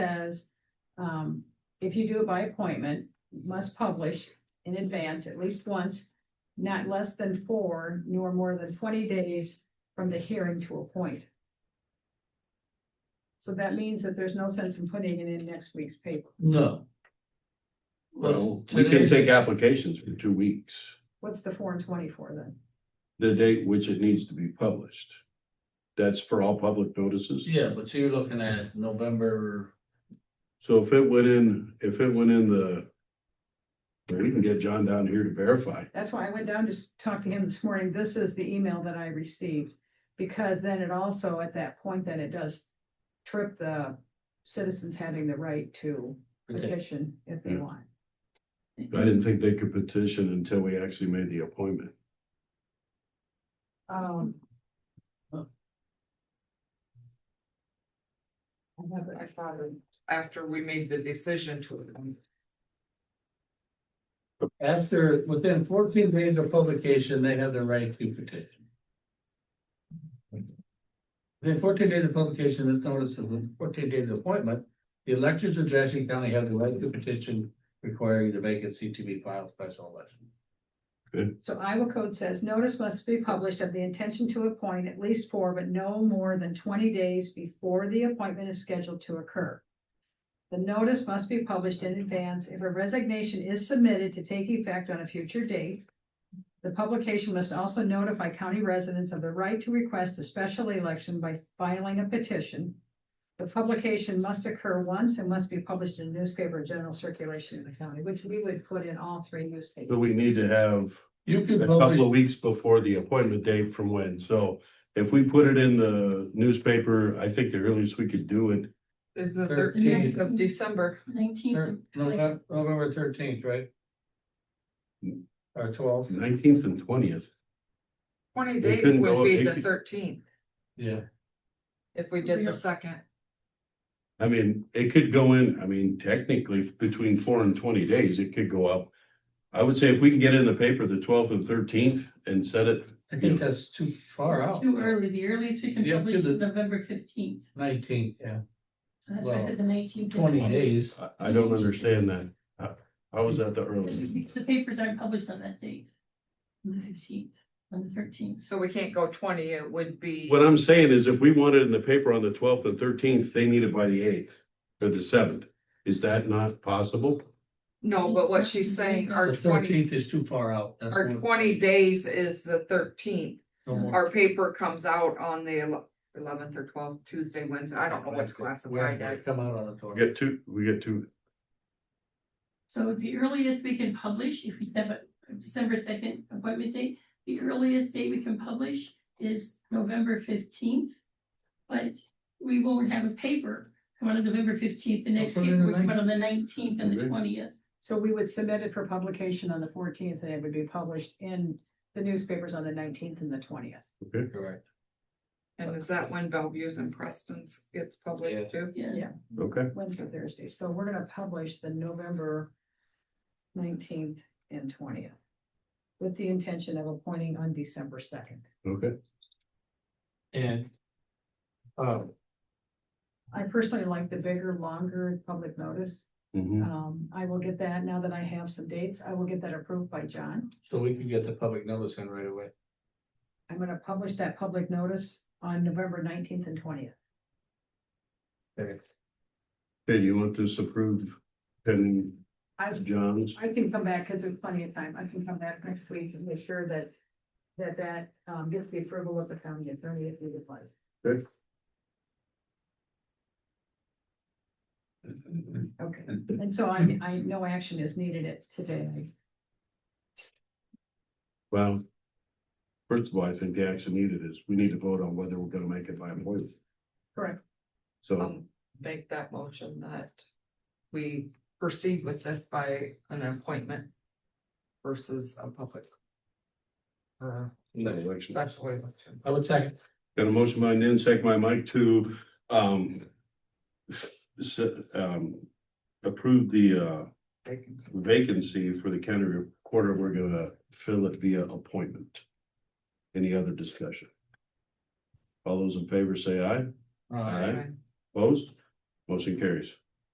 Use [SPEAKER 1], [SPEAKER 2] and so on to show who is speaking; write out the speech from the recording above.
[SPEAKER 1] says, um, if you do it by appointment, you must publish in advance at least once, not less than four nor more than twenty days from the hearing to appoint. So that means that there's no sense in putting it in next week's paper.
[SPEAKER 2] No.
[SPEAKER 3] Well, we can take applications for two weeks,
[SPEAKER 1] What's the four and twenty for then?
[SPEAKER 3] the date which it needs to be published. That's for all public notices.
[SPEAKER 2] Yeah, but you're looking at November,
[SPEAKER 3] So if it went in, if it went in the. We can get John down here to verify.
[SPEAKER 1] That's why I went down to s- talk to him this morning. This is the email that I received. Because then it also, at that point, then it does trip the citizens having the right to petition if they
[SPEAKER 3] Yeah.
[SPEAKER 1] want.
[SPEAKER 3] I didn't think they could petition until we actually made the appointment.
[SPEAKER 1] Um.
[SPEAKER 2] Huh.
[SPEAKER 1] I have it.
[SPEAKER 4] I thought of after we made the decision to. um,
[SPEAKER 2] after, within fourteen days of publication, they have the right to petition. Within fourteen days of publication, this notice of fourteen days of appointment, the electors of Jackson County have the right to petition requiring the vacancy to be filed special election.
[SPEAKER 1] So Iowa code says notice must be published of the intention to appoint at least four, but no more than twenty days before the appointment is scheduled to occur. The notice must be published in advance if a resignation is submitted to take effect on a future date. The publication must also notify county residents of the right to request a special election by filing a petition. The publication must occur once and must be published in newspaper of general circulation in the county, which we would put in all three newspapers.
[SPEAKER 3] But we need to have
[SPEAKER 2] You
[SPEAKER 3] a
[SPEAKER 2] can
[SPEAKER 3] couple
[SPEAKER 2] publish,
[SPEAKER 3] of weeks before the appointment date from when. So if we put it in the newspaper, I think the earliest we could do it.
[SPEAKER 4] Is the
[SPEAKER 2] Thirteenth.
[SPEAKER 4] thirteenth of December.
[SPEAKER 2] thir-
[SPEAKER 5] Nineteenth,
[SPEAKER 2] November, November thirteenth, right? Or twelve,
[SPEAKER 3] Nineteenth and twentieth.
[SPEAKER 4] Twenty
[SPEAKER 3] They
[SPEAKER 4] days
[SPEAKER 3] couldn't
[SPEAKER 4] would
[SPEAKER 3] go-
[SPEAKER 4] be
[SPEAKER 3] they
[SPEAKER 4] the
[SPEAKER 3] could-
[SPEAKER 4] thirteenth
[SPEAKER 2] yeah.
[SPEAKER 4] if we did the second.
[SPEAKER 3] I mean, it could go in, I mean, technically between four and twenty days, it could go up. I would say if we can get it in the paper the twelfth and thirteenth and set it,
[SPEAKER 2] I think that's too far
[SPEAKER 5] it's
[SPEAKER 2] out.
[SPEAKER 5] too early, the earliest we can
[SPEAKER 2] Yeah,
[SPEAKER 5] publish
[SPEAKER 2] give
[SPEAKER 5] is
[SPEAKER 2] the-
[SPEAKER 5] November fifteenth,
[SPEAKER 2] Nineteenth, yeah,
[SPEAKER 5] that's why I said the nineteenth.
[SPEAKER 2] twenty days.
[SPEAKER 3] I, I don't understand that. How- How is that the earliest?
[SPEAKER 5] The papers aren't published on that date, on the fifteenth, on the thirteenth.
[SPEAKER 4] So we can't go twenty, it would be.
[SPEAKER 3] What I'm saying is if we want it in the paper on the twelfth and thirteenth, they need it by the eighth or the seventh. Is that not possible?
[SPEAKER 4] No, but what she's saying, our
[SPEAKER 2] The
[SPEAKER 4] twenty,
[SPEAKER 2] thirteenth is too far out. That's
[SPEAKER 4] our
[SPEAKER 2] one-
[SPEAKER 4] twenty days is the thirteenth.
[SPEAKER 2] no more.
[SPEAKER 4] Our paper comes out on the eleventh or twelfth, Tuesday, Wednesday, I don't know what's classified
[SPEAKER 2] Wednesday,
[SPEAKER 4] as.
[SPEAKER 2] Come out on the
[SPEAKER 3] We
[SPEAKER 2] twentieth.
[SPEAKER 3] get two, we get two.
[SPEAKER 5] So the earliest we can publish, if we have a December second appointment date, the earliest date we can publish is November fifteenth. But we won't have a paper come out on November fifteenth, the next
[SPEAKER 2] put it
[SPEAKER 5] paper
[SPEAKER 2] in
[SPEAKER 5] will
[SPEAKER 2] the
[SPEAKER 5] come out on the nineteenth and the
[SPEAKER 3] Okay.
[SPEAKER 5] twentieth.
[SPEAKER 1] So we would submit it for publication on the fourteenth and it would be published in the newspapers on the nineteenth and the twentieth.
[SPEAKER 2] Correct.
[SPEAKER 4] And is that when Bellevue's and Preston's gets
[SPEAKER 2] Yeah.
[SPEAKER 4] published too?
[SPEAKER 5] Yeah,
[SPEAKER 3] Okay,
[SPEAKER 1] Wednesday, Thursday. So we're gonna publish the November nineteenth and twentieth. With the intention of appointing on December second.
[SPEAKER 3] okay.
[SPEAKER 2] And. Uh,
[SPEAKER 1] I personally like the bigger, longer public notice.
[SPEAKER 3] Mhm.
[SPEAKER 1] Um, I will get that now that I have some dates. I will get that approved by John.
[SPEAKER 2] so we can get the public notice in right away.
[SPEAKER 1] I'm gonna publish that public notice on November nineteenth and twentieth.
[SPEAKER 2] Okay.
[SPEAKER 3] Okay, do you want this approved pending John's?
[SPEAKER 1] I can come back, because there's plenty of time, I can come back next week and make sure that, that that, um, gets the approval of the county attorney if needed. like.
[SPEAKER 3] Okay.
[SPEAKER 1] Okay, and so I, I, no action is needed it today.
[SPEAKER 3] Well, first of all, I think the action needed is we need to vote on whether we're gonna make it by appointment.
[SPEAKER 1] Correct.
[SPEAKER 3] So
[SPEAKER 4] Um, make that motion that we proceed with this by an appointment versus a public. Uh,
[SPEAKER 3] election.
[SPEAKER 4] special election.
[SPEAKER 2] I would second.
[SPEAKER 3] Got a motion by Nan, second by Mike to, um, s- um, approve the, uh,
[SPEAKER 4] vacancy.
[SPEAKER 3] vacancy for the county recorder. We're gonna fill it via appointment. Any other discussion? All those in favor say aye.
[SPEAKER 2] Uh,
[SPEAKER 3] Opposed? Motion carries.